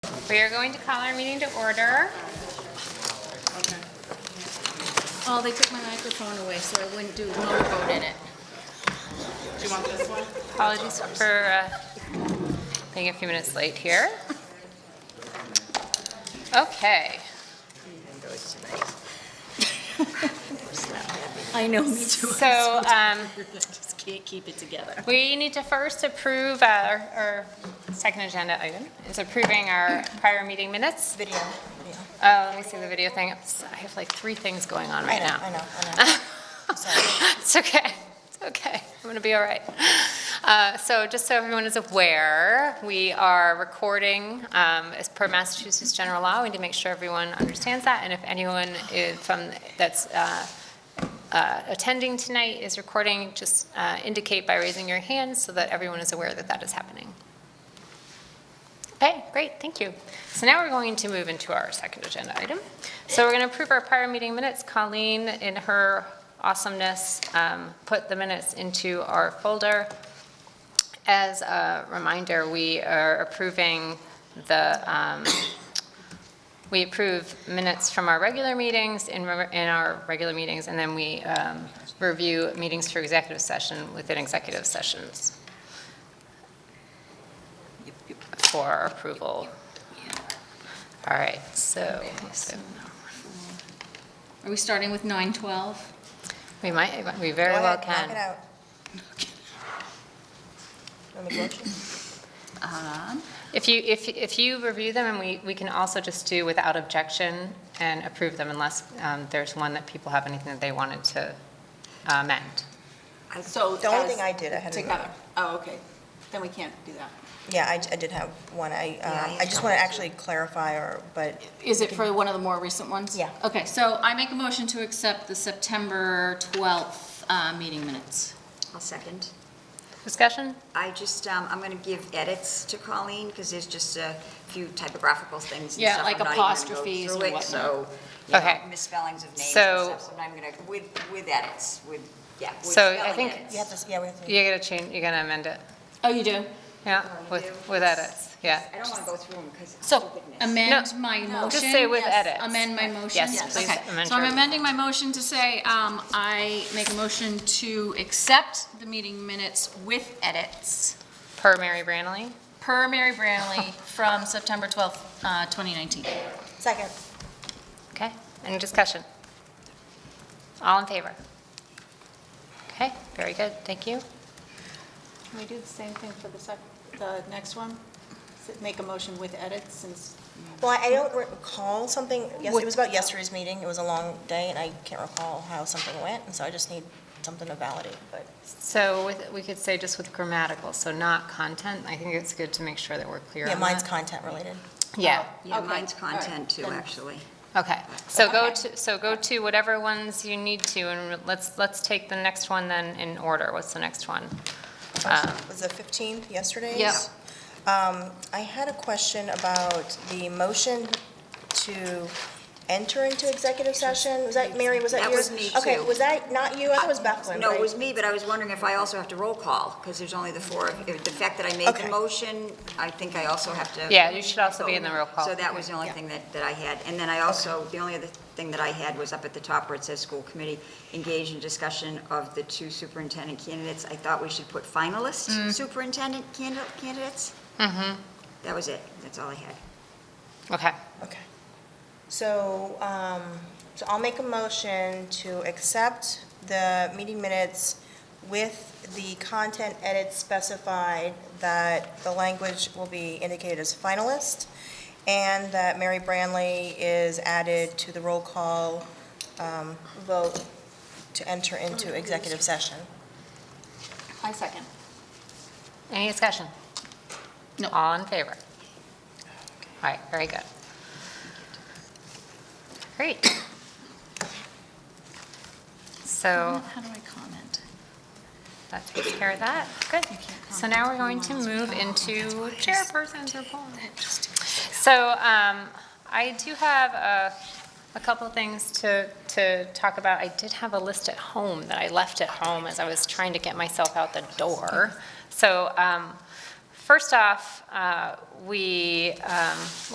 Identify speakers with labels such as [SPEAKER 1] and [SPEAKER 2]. [SPEAKER 1] We are going to call our meeting to order.
[SPEAKER 2] Oh, they took my microphone away, so I wouldn't do no vote in it.
[SPEAKER 3] Do you want this one?
[SPEAKER 1] Apologies for uh, being a few minutes late here. Okay.
[SPEAKER 2] I know, me too.
[SPEAKER 1] So um,
[SPEAKER 2] Just can't keep it together.
[SPEAKER 1] we need to first approve our, our second agenda item is approving our prior meeting minutes.
[SPEAKER 4] Video, video.
[SPEAKER 1] Uh, Let me see the video thing. I have like three things going on
[SPEAKER 4] I
[SPEAKER 1] right
[SPEAKER 4] know,
[SPEAKER 1] now.
[SPEAKER 4] I know, I know. Sorry.
[SPEAKER 1] It's okay. It's okay. I'm going to be all right. Uh, So just so everyone is aware, we are recording um, as per Massachusetts general law. We need to make sure everyone understands that. And if anyone is from, that's uh, uh, attending tonight is recording, just uh, indicate by raising your hand so that everyone is aware that that is happening. Okay, great, thank you. So now we're going to move into our second agenda item. So we're going to approve our prior meeting minutes. Colleen, in her awesomeness, um, put the minutes into our folder. As a reminder, we are approving the, um, we approve minutes from our regular meetings, in re- in our regular meetings, and then we um, review meetings for executive session within executive sessions for approval. All right, so so
[SPEAKER 2] Are we starting with nine twelve?
[SPEAKER 1] we might, we very
[SPEAKER 4] Go
[SPEAKER 1] well
[SPEAKER 4] ahead, Knock it
[SPEAKER 1] can.
[SPEAKER 4] out. Want me to watch it?
[SPEAKER 2] Um,
[SPEAKER 1] If you, if, if you review them, and we, we can also just do without objection and approve them unless um, there's one that people have anything that they wanted to uh, amend.
[SPEAKER 3] So.
[SPEAKER 4] The only
[SPEAKER 3] as-
[SPEAKER 4] thing I did, I had an-
[SPEAKER 3] Together. Oh, okay. Then we can't do that.
[SPEAKER 4] Yeah, I, I did have one. I, um, I just want to actually clarify or, but
[SPEAKER 2] Is it for one of the more recent ones?
[SPEAKER 4] Yeah.
[SPEAKER 2] Okay, so I make a motion to accept the September twelfth, uh, meeting minutes.
[SPEAKER 5] I'll second.
[SPEAKER 1] Discussion?
[SPEAKER 5] I just, um, I'm gonna give edits to Colleen, because there's just a few typographical things and
[SPEAKER 2] Yeah,
[SPEAKER 5] stuff. I'm
[SPEAKER 2] like
[SPEAKER 5] not even gonna go
[SPEAKER 2] apostrophes
[SPEAKER 5] through
[SPEAKER 2] and
[SPEAKER 5] it,
[SPEAKER 2] whatnot.
[SPEAKER 5] So, you know,
[SPEAKER 1] Okay.
[SPEAKER 5] misspellings of names and
[SPEAKER 1] So-
[SPEAKER 5] stuff, so I'm gonna, with, with edits, with, yeah, with
[SPEAKER 1] So I
[SPEAKER 5] spelling
[SPEAKER 1] think-
[SPEAKER 5] edits.
[SPEAKER 4] you have to, yeah, we have to.
[SPEAKER 1] You're gonna change, you're gonna amend it,
[SPEAKER 2] Oh, you do?
[SPEAKER 1] yeah, with, with edits, yeah.
[SPEAKER 5] I don't wanna go through them, because,
[SPEAKER 2] So amend
[SPEAKER 1] No,
[SPEAKER 2] my
[SPEAKER 1] Oh, no.
[SPEAKER 2] motion.
[SPEAKER 1] Just say with
[SPEAKER 2] Yes,
[SPEAKER 1] edits.
[SPEAKER 2] Amend my motion.
[SPEAKER 1] Yes, Yes. please
[SPEAKER 2] Okay,
[SPEAKER 1] amend
[SPEAKER 2] so I'm
[SPEAKER 1] your-
[SPEAKER 2] amending my motion to say, um, I make a motion to accept the meeting minutes with edits
[SPEAKER 1] Per Mary Branley?
[SPEAKER 2] per Mary Branley from September twelfth, uh, twenty nineteen.
[SPEAKER 4] Second.
[SPEAKER 1] Okay, any discussion? All in favor? Okay, very good, thank you.
[SPEAKER 6] Can we do the same thing for the sec, the next one? S- Make a motion with edits since,
[SPEAKER 4] Well, I I don't recall something, yes, it was about yesterday's meeting. It was a long day and I can't recall how something went. And so I just need something to validate, but
[SPEAKER 1] So with, we could say just with grammatical, so not content, I think it's good to make sure that we're clear
[SPEAKER 4] yeah,
[SPEAKER 1] on
[SPEAKER 4] mine's
[SPEAKER 1] that.
[SPEAKER 4] content related.
[SPEAKER 1] Yeah,
[SPEAKER 5] yeah,
[SPEAKER 6] Okay,
[SPEAKER 5] mine's
[SPEAKER 6] all right,
[SPEAKER 5] content too,
[SPEAKER 6] then.
[SPEAKER 5] actually.
[SPEAKER 1] okay, so go to, so go to whatever ones you need to, and let's, let's take the next one then in order, what's the next one? Uh,
[SPEAKER 4] was the 15th yesterday's?
[SPEAKER 1] Yep.
[SPEAKER 4] Um, I had a question about the motion to enter into executive session. Was that, Mary, was that
[SPEAKER 5] That
[SPEAKER 4] yours?
[SPEAKER 5] was me,
[SPEAKER 4] Okay,
[SPEAKER 5] too.
[SPEAKER 4] was that not you? I thought it was Bethland,
[SPEAKER 5] No, it
[SPEAKER 4] right?
[SPEAKER 5] was me, but I was wondering if I also have to roll call, because there's only the four, of- if the fact that I made
[SPEAKER 4] Okay.
[SPEAKER 5] the motion, I think I also have to.
[SPEAKER 1] Yeah, you should also be in the roll call.
[SPEAKER 5] So that was the only thing that, that I had. And then I also, the only other thing that I had was up at the top where it says school committee, engaged in discussion of the two superintendent candidates. I thought we should put
[SPEAKER 1] Mm.
[SPEAKER 5] finalist superintendent candidate, candidates. Mm-hmm. That was it, that's all I had.
[SPEAKER 1] Okay,
[SPEAKER 4] Okay. So, um, so I'll make a motion to accept the meeting minutes with the content edits specified that the language will be indicated as finalist, and that Mary Branley is added to the roll call um, vote to enter into executive session.
[SPEAKER 2] I second.
[SPEAKER 1] any discussion?
[SPEAKER 2] No.
[SPEAKER 1] All in favor? All right, very good. Great. So.
[SPEAKER 2] How do I comment?
[SPEAKER 1] That takes care of that. Good. So now we're going to move into chairperson's report. So um, I do have a, a couple of things to, to talk about. I did have a list at home that I left at home as I was trying to get myself out the door. So um, first off, uh, we, um,